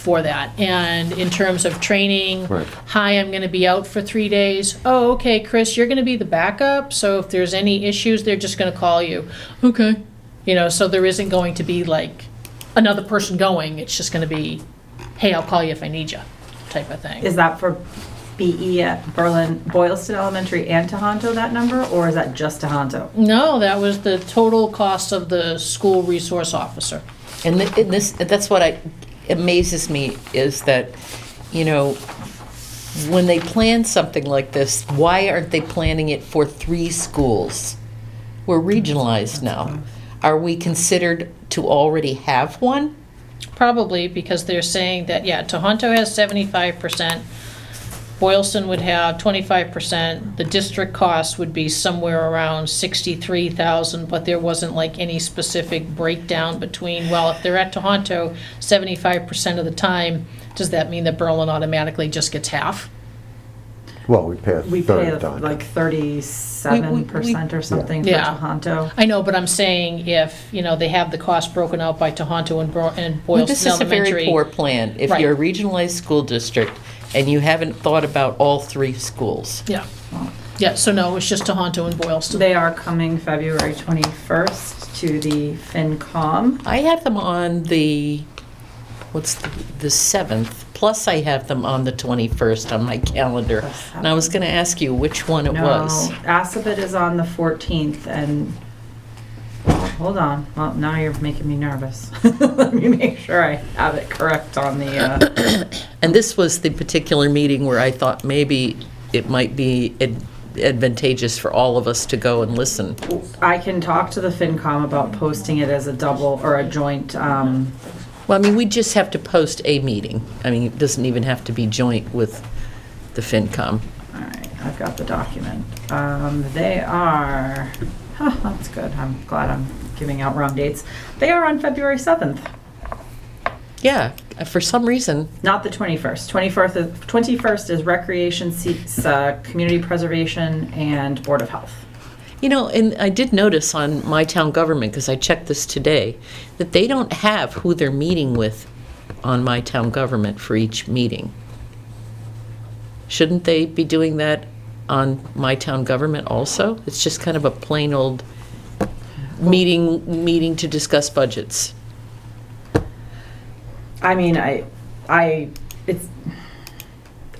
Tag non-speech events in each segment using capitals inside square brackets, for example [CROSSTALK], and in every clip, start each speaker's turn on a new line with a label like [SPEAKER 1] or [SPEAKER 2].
[SPEAKER 1] for that. And in terms of training,
[SPEAKER 2] Right.
[SPEAKER 1] hi, I'm going to be out for three days. Oh, okay, Chris, you're going to be the backup. So if there's any issues, they're just going to call you. Okay. You know, so there isn't going to be like another person going. It's just going to be, hey, I'll call you if I need you, type of thing.
[SPEAKER 3] Is that for BE at Berlin, Boylston Elementary and Tohoto, that number, or is that just Tohoto?
[SPEAKER 1] No, that was the total cost of the school resource officer.
[SPEAKER 4] And th- and this, that's what I, amazes me, is that, you know, when they plan something like this, why aren't they planning it for three schools? We're regionalized now. Are we considered to already have one?
[SPEAKER 1] Probably because they're saying that, yeah, Tohoto has seventy-five percent, Boylston would have twenty-five percent, the district cost would be somewhere around sixty-three thousand, but there wasn't like any specific breakdown between, well, if they're at Tohoto seventy-five percent of the time, does that mean that Berlin automatically just gets half?
[SPEAKER 2] Well, we pay a
[SPEAKER 3] We pay
[SPEAKER 2] third time.
[SPEAKER 3] like thirty-seven percent or something for
[SPEAKER 1] Yeah.
[SPEAKER 3] Tohoto.
[SPEAKER 1] I know, but I'm saying if, you know, they have the cost broken out by Tohoto and Bro- and
[SPEAKER 4] Well, This
[SPEAKER 1] Boylston
[SPEAKER 4] is a very
[SPEAKER 1] Elementary.
[SPEAKER 4] poor plan. If
[SPEAKER 1] Right.
[SPEAKER 4] you're a regionalized school district and you haven't thought about all three schools.
[SPEAKER 1] Yeah, yeah, so no, it's just Tohoto and Boylston.
[SPEAKER 3] They are coming February twenty-first to the FinCom.
[SPEAKER 4] I have them on the, what's the, the 7th, plus I have them on the 21st on my calendar. And I was going to ask you which one it
[SPEAKER 3] No,
[SPEAKER 4] was.
[SPEAKER 3] Assabet is on the fourteenth and, oh, hold on, well, now you're making me nervous. [LAUGHS] Let me make sure I have it correct on the, uh,
[SPEAKER 4] And this was the particular meeting where I thought maybe it might be ad- advantageous for all of us to go and listen.
[SPEAKER 3] I can talk to the FinCom about posting it as a double or a joint, um,
[SPEAKER 4] Well, I mean, we just have to post a meeting. I mean, it doesn't even have to be joint with the FinCom.
[SPEAKER 3] All right, I've got the document. Um, they are, [LAUGHS] huh, that's good. I'm glad I'm giving out wrong dates. They are on February 7th,
[SPEAKER 4] Yeah, uh, for some reason,
[SPEAKER 3] not the 21st. 21st is, 21st is Recreation, Se- uh, Community Preservation, and Board of Health.
[SPEAKER 4] You know, and I did notice on my town government, because I checked this today, that they don't have who they're meeting with on my town government for each meeting. Shouldn't they be doing that on my town government also? It's just kind of a plain old meeting, meeting to discuss budgets.
[SPEAKER 3] I mean, I, I, it's,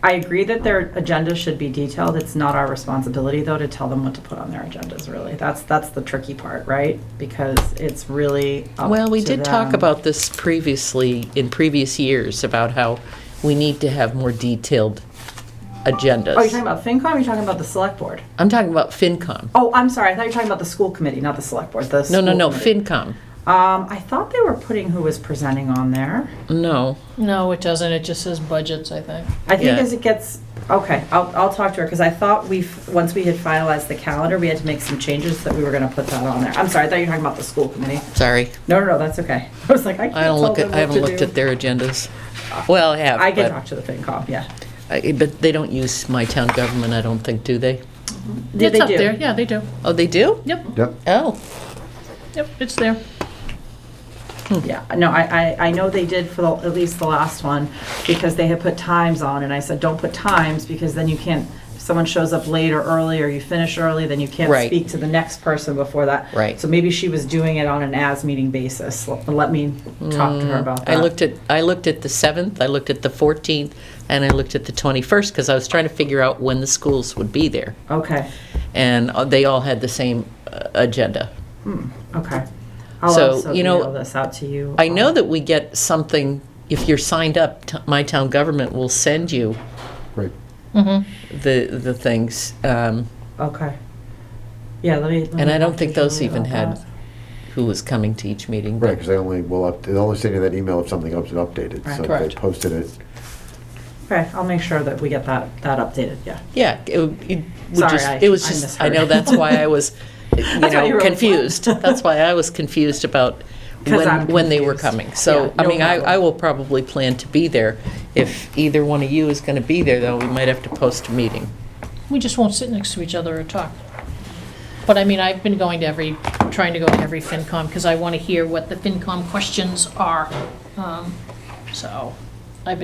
[SPEAKER 3] I agree that their agenda should be detailed. It's not our responsibility, though, to tell them what to put on their agendas, really. That's, that's the tricky part, right? Because it's really up
[SPEAKER 4] Well, we
[SPEAKER 3] to
[SPEAKER 4] did talk
[SPEAKER 3] them.
[SPEAKER 4] about this previously, in previous years, about how we need to have more detailed agendas.
[SPEAKER 3] Oh, you're talking about FinCom, or you're talking about the select board?
[SPEAKER 4] I'm talking about FinCom.
[SPEAKER 3] Oh, I'm sorry, I thought you were talking about the school committee, not the select board, the
[SPEAKER 4] No, no,
[SPEAKER 3] school
[SPEAKER 4] no,
[SPEAKER 3] committee.
[SPEAKER 4] FinCom.
[SPEAKER 3] Um, I thought they were putting who was presenting on there.
[SPEAKER 4] No.
[SPEAKER 1] No, it doesn't, it just says budgets, I think.
[SPEAKER 3] I think
[SPEAKER 4] Yeah.
[SPEAKER 3] as it gets, okay, I'll, I'll talk to her, because I thought we, once we had finalized the calendar, we had to make some changes that we were gonna put that on there. I'm sorry, I thought you were talking about the school committee.
[SPEAKER 4] Sorry.
[SPEAKER 3] No, no, no, that's okay. [LAUGHS] I was like, I can't
[SPEAKER 4] I don't
[SPEAKER 3] tell
[SPEAKER 4] look
[SPEAKER 3] them
[SPEAKER 4] at, I
[SPEAKER 3] what
[SPEAKER 4] haven't
[SPEAKER 3] to
[SPEAKER 4] looked at
[SPEAKER 3] do.
[SPEAKER 4] their agendas. Well, I have.
[SPEAKER 3] I can
[SPEAKER 4] but-
[SPEAKER 3] talk to the FinCom, yeah.
[SPEAKER 4] I- But they don't use my town government, I don't think, do they?
[SPEAKER 3] Yeah,
[SPEAKER 1] It's
[SPEAKER 3] they
[SPEAKER 1] up
[SPEAKER 3] do.
[SPEAKER 1] there, yeah, they do.
[SPEAKER 4] Oh, they do?
[SPEAKER 1] Yep,
[SPEAKER 2] Yep,
[SPEAKER 4] Oh,
[SPEAKER 1] yep, it's there.
[SPEAKER 3] Yeah, no, I, I, I know they did for the, at least the last one, because they had put times on, and I said, don't put times, because then you can't, if someone shows up late or early, or you finish early, then you can't
[SPEAKER 4] Right.
[SPEAKER 3] speak to the next person before that.
[SPEAKER 4] Right.
[SPEAKER 3] So maybe she was doing it on an as-meeting basis, let let me talk to her about that.
[SPEAKER 4] Mm, I looked at, I looked at the 7th, I looked at the 14th, and I looked at the 21st, because I was trying to figure out when the schools would be there.
[SPEAKER 3] Okay,
[SPEAKER 4] And uh, they all had the same uh, agenda.
[SPEAKER 3] Hmm, okay. I'll
[SPEAKER 4] So,
[SPEAKER 3] also
[SPEAKER 4] you know,
[SPEAKER 3] email this out to you.
[SPEAKER 4] I know that we get something, if you're signed up, t- my town government will send you
[SPEAKER 2] right.
[SPEAKER 3] Mm-hmm.
[SPEAKER 4] the, the things. um,
[SPEAKER 3] Okay. Yeah, let me. let
[SPEAKER 4] And
[SPEAKER 3] me
[SPEAKER 4] I don't
[SPEAKER 3] talk
[SPEAKER 4] think
[SPEAKER 3] to
[SPEAKER 4] those
[SPEAKER 3] Julie
[SPEAKER 4] even
[SPEAKER 3] about
[SPEAKER 4] had
[SPEAKER 3] that.
[SPEAKER 4] who was coming to each meeting. but-
[SPEAKER 2] Right, because they only will, up- they only send you that email if something up- updated.
[SPEAKER 3] Right.
[SPEAKER 2] So if
[SPEAKER 1] Correct.
[SPEAKER 2] they posted it.
[SPEAKER 3] Okay, I'll make sure that we get that, that updated, yeah.
[SPEAKER 4] Yeah, it, would- it would
[SPEAKER 3] Sorry,
[SPEAKER 4] just,
[SPEAKER 3] I-
[SPEAKER 4] it was
[SPEAKER 3] I
[SPEAKER 4] just, I
[SPEAKER 3] misheard.
[SPEAKER 4] know, that's why
[SPEAKER 3] [LAUGHS]
[SPEAKER 4] I was, you
[SPEAKER 3] That's why you
[SPEAKER 4] know,
[SPEAKER 3] were like,
[SPEAKER 4] confused. That's why I was confused about
[SPEAKER 3] [LAUGHS] 'Cause I'm
[SPEAKER 4] when, when they were
[SPEAKER 3] confused.
[SPEAKER 4] coming. So,
[SPEAKER 3] Yeah,
[SPEAKER 4] I
[SPEAKER 3] no
[SPEAKER 4] mean, I,
[SPEAKER 3] problem.
[SPEAKER 4] I will probably plan to be there. If either one of you is going to be there, though, we might have to post a meeting.
[SPEAKER 1] We just won't sit next to each other or talk. But I mean, I've been going to every, trying to go to every FinCom because I want to hear what the FinCom questions are. Um, So,